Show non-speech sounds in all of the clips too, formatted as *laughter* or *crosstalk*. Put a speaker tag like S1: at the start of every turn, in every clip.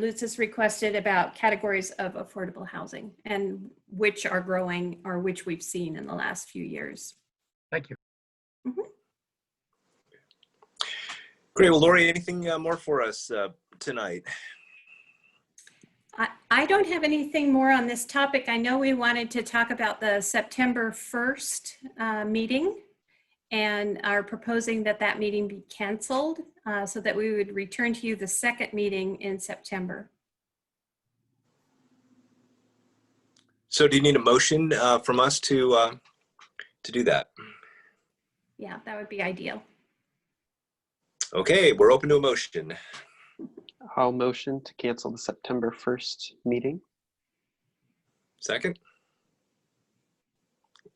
S1: Lutz has requested about categories of affordable housing and which are growing or which we've seen in the last few years.
S2: Thank you.
S3: Great. Well, Lori, anything uh, more for us uh, tonight?
S1: I, I don't have anything more on this topic. I know we wanted to talk about the September 1st uh, meeting and are proposing that that meeting be canceled uh, so that we would return to you the second meeting in September.
S3: So, do you need a motion uh, from us to uh, to do that?
S1: Yeah, that would be ideal. *laughs*
S3: Okay, we're open to a motion.
S2: I'll motion to cancel the September 1st meeting.
S3: Second.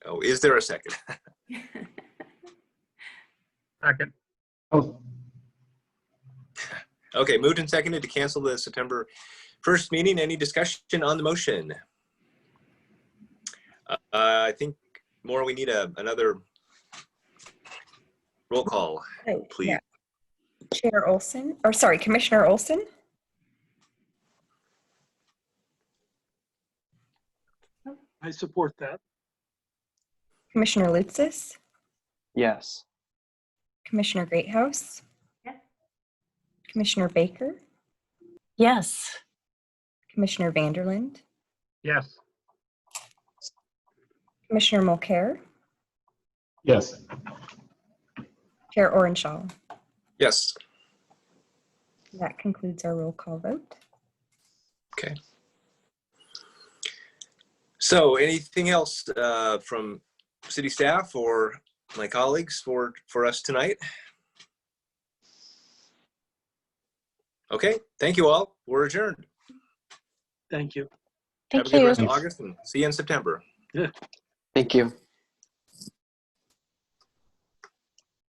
S3: Oh, is there a second?
S4: Second.
S5: Oh,
S3: Okay, moved and seconded to cancel the September first meeting. Any discussion on the motion? Uh, I think more. We need a another roll call,
S6: Right,
S3: please.
S6: Oh, yeah. Chair Olson, or sorry, Commissioner Olson,
S4: I support that.
S6: Commissioner Lutzis,
S2: Yes.
S6: Commissioner Greathouse.
S1: Yes.
S6: Commissioner Baker,
S7: Yes.
S6: Commissioner Vanderland,
S4: Yes.
S6: Commissioner Mulcair,
S5: yes.
S6: Chair Orenshaw.
S3: Yes.
S6: That concludes our roll call vote.
S3: So, anything else uh, from city staff or my colleagues for for us tonight? Okay, thank you all. We're adjourned.
S4: Thank you.
S3: Have a
S7: Thank
S3: good
S7: you.
S3: rest of August and see you in September.
S2: Thank you.